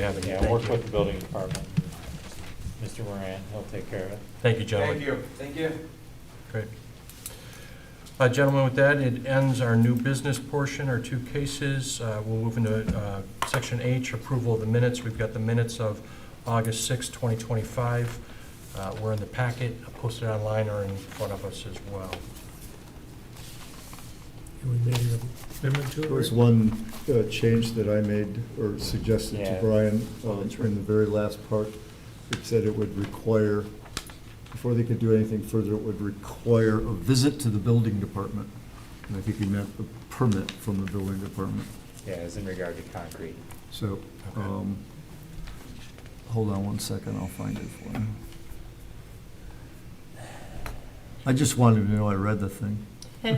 Yeah, but yeah, Thank work you. with the building department. Mr. Moran, he'll take care of it. Thank you, gentlemen. Thank you. Thank you. Great. Uh, Gentlemen, with that, it ends our new business portion, our two cases. Uh, We'll move into uh, Section H, approval of the minutes. We've got the minutes of August 6, 2025. Uh, We're in the packet, posted online or in front of us as well. And we made an amendment to it. There was one uh, change that I made or suggested to Yeah. Oh, Brian um, that's right. in the very last part. It said it would require, before they could do anything further, it would require a visit to the building department. And I think he meant a permit from the building department. Yeah, as in regard to concrete. So, um, hold on one second, I'll find it for you. I just wanted to know I read the thing. Do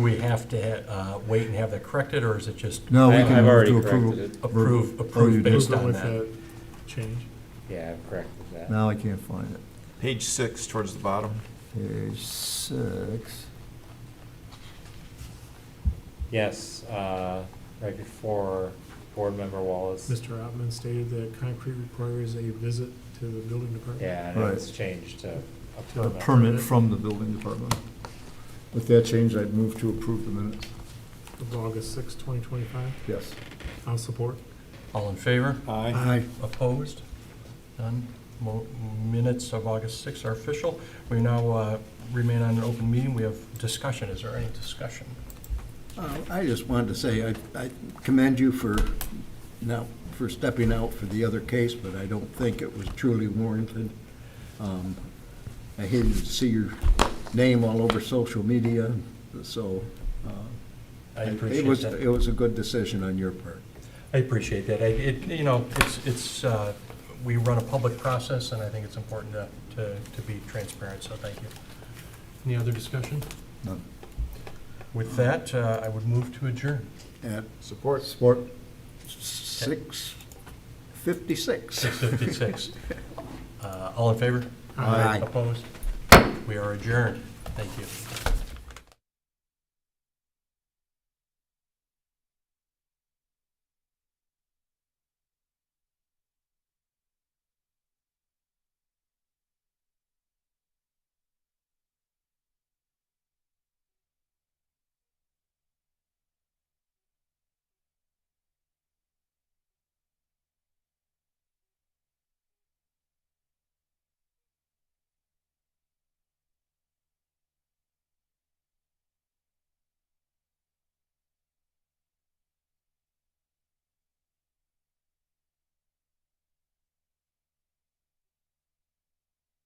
we have to ha- uh, wait and have that corrected, or is it just No, we I- can I've move already to approval. corrected it. approve, you approve did. based Move on with that? that change. Yeah, I've corrected that. Now I can't find it. Page six, towards the bottom. Page six. Yes, uh, right before Board Member Wallace. Mr. Ottman stated that concrete requires a visit to the building department. Yeah, and it Right. was changed to a To A permit. permit from the building department. With that change, I'd move to approve the minutes. Of August 6, 2025. Yes. I'll support. All in favor? Aye. Opposed? None? Mo- Minutes of August 6th are official. We now uh, remain on an open meeting. We have discussion. Is there any discussion? Uh, I just wanted to say, I I commend you for now, for stepping out for the other case, but I don't think it was truly warranted. Um, I hated to see your name all over social media, so. uh, I it- appreciate It was, that. it was a good decision on your part. I appreciate that. I- It, you know, it's, it's, uh, we run a public process, and I think it's important to, to to be transparent, so thank you. Any other discussion? None. With that, uh, I would move to adjourn. At Support. Support. six fifty-six. 6:56. Uh, All in favor? Aye. Opposed? We are adjourned. Thank you.